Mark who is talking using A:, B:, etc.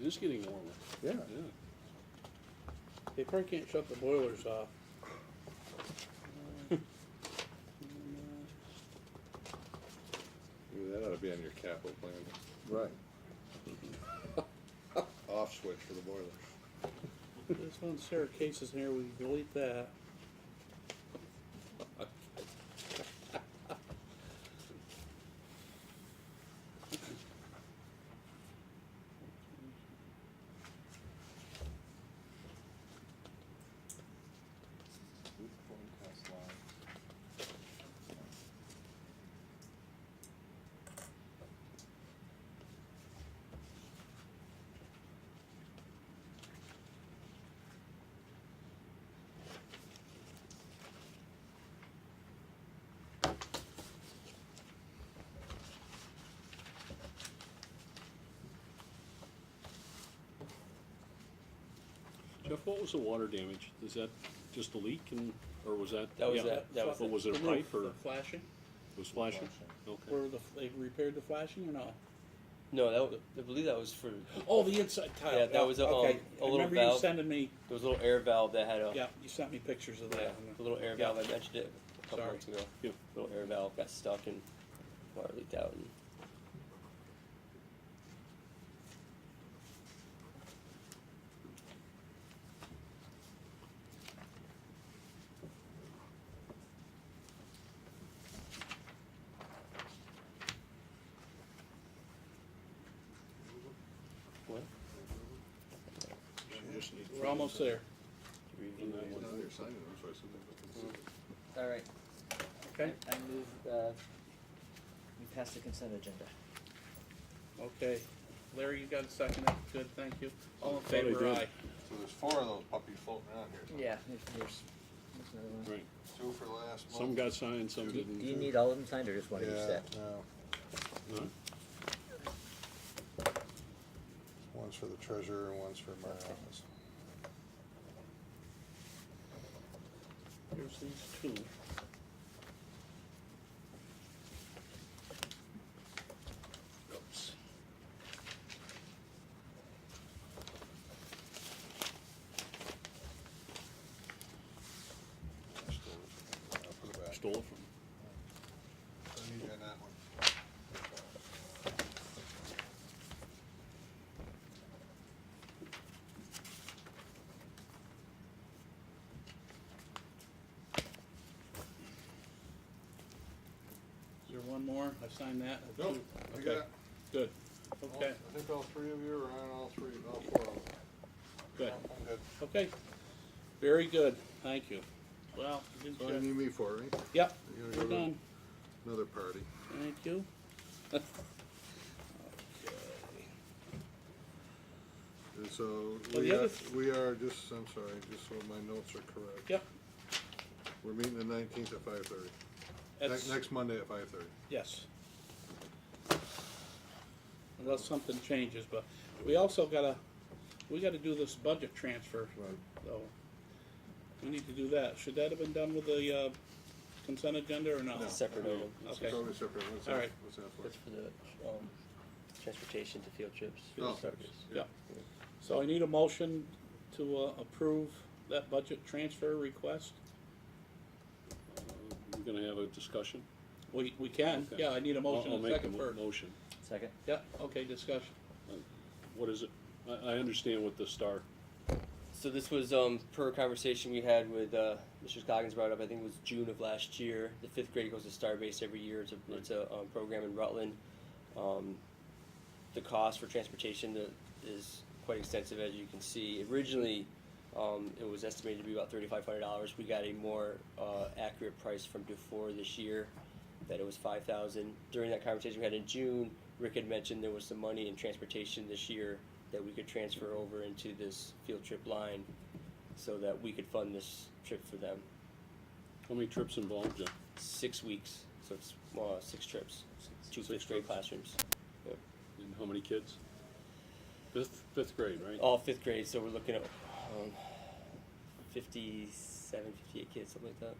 A: It is getting warmer,
B: Yeah,
A: yeah.
C: They probably can't shut the boilers off.
D: Ooh, That ought to be on your capital plan,
B: right.
D: off switch for the boilers.
C: This one Sarah Case's in here, we can delete that.
A: Jeff, what was the water damage? Is that just a leak and, or was that?
E: That was
A: yeah,
E: that- that was
A: But
E: it.
A: was it a
C: The roof,
A: pipe or
C: the Flashing,
A: was flashing? Okay.
C: where the, they repaired the flashing or no?
E: No, that was, I believe that was for,
C: Oh, the inside tile.
E: Yeah, that was a,
C: Okay,
E: um, a
C: I
E: little
C: Remember you
E: valve.
C: sending me,
E: there was a little air valve that had a,
C: yeah, you sent me pictures of
E: yeah,
C: that.
E: the little air
C: Yeah.
E: valve, I mentioned it a couple
C: Sorry.
E: months ago.
A: Yeah.
E: Little air valve got stuck and water leaked out and
C: We're almost there,
E: reviewed it.
F: All right,
C: okay?
F: I move, uh, we pass the consent agenda.
C: Okay. Larry, you got a second? That's Good, thank you. All in
A: Thought I
C: favor,
A: did.
C: aye.
D: So there's four of those puppies floating around here,
F: Yeah. There's, there's another one.
A: Right.
D: two for last month.
A: Some got signed, some
F: Do do you
A: didn't.
F: need all of them signed or just one of each
D: Yeah,
F: set?
D: no,
A: Huh?
D: one's for the treasurer and one's for my office.
C: Here's these two. Oops.
D: I stole it. I'll put it back.
A: Stole it from,
D: I need you on that one.
C: Is there one more? I signed that. I
D: Nope,
C: do.
D: I
C: Okay,
D: got,
C: good,
D: all-
C: okay,
D: I think all three of you are on all three, all four of them.
C: good,
D: I'm good.
C: okay. Very good, thank you. Well, you
D: That's all you
C: did-
D: need me for, right?
C: yep,
D: You're
C: we're
D: gonna go
C: done,
D: to another party.
C: thank you.
D: And so,
C: Well,
D: we
C: the
D: are,
C: other th-
D: we are just, I'm sorry, just so my notes are correct.
C: Yep,
D: We're meeting the nineteenth at five thirty.
C: that's,
D: Next, next Monday at five thirty.
C: yes. Unless something changes, but we also gotta, we gotta do this budget transfer,
D: Right.
C: so we need to do that. Should that have been done with the, uh, consent agenda or no?
D: No.
E: separate item.
A: Uh,
C: Okay.
D: Totally separate, what's
C: All
D: that,
C: right.
D: what's that for?
E: That's for the, um, transportation to field trips.
D: Oh.
E: field service.
C: Yeah. So I need a motion to uh, approve that budget transfer request?
A: we're gonna have a discussion.
C: We, we can,
A: Okay.
C: yeah, I need a
A: I'll-
C: motion
A: I'll
C: and a
A: make
C: second
A: mo-
C: first.
A: Motion.
F: Second?
C: Yeah, okay, discussion.
A: What is it? I, I understand what the star,
E: So this was um, per conversation we had with uh, Mr. Scoggins brought up. I think it was June of last year. The fifth grade goes to Starbase every year. It's a, it's a um, program in Rutland. Um, the cost for transportation to, is quite extensive, as you can see. Originally, um, it was estimated to be about thirty-five hundred dollars. We got a more uh, accurate price from Dufour this year, that it was five thousand. During that conversation we had in June, Rick had mentioned there was some money in transportation this year that we could transfer over into this field trip line, so that we could fund this trip for them.
A: how many trips involved, Jeff?
E: Six weeks, so it's uh, six trips, two
A: Six
E: fifth grade
A: trips.
E: classrooms.
A: And how many kids? Fifth, fifth grade, right?
E: all fifth grade, so we're looking at um, 57, 58 kids, something like that.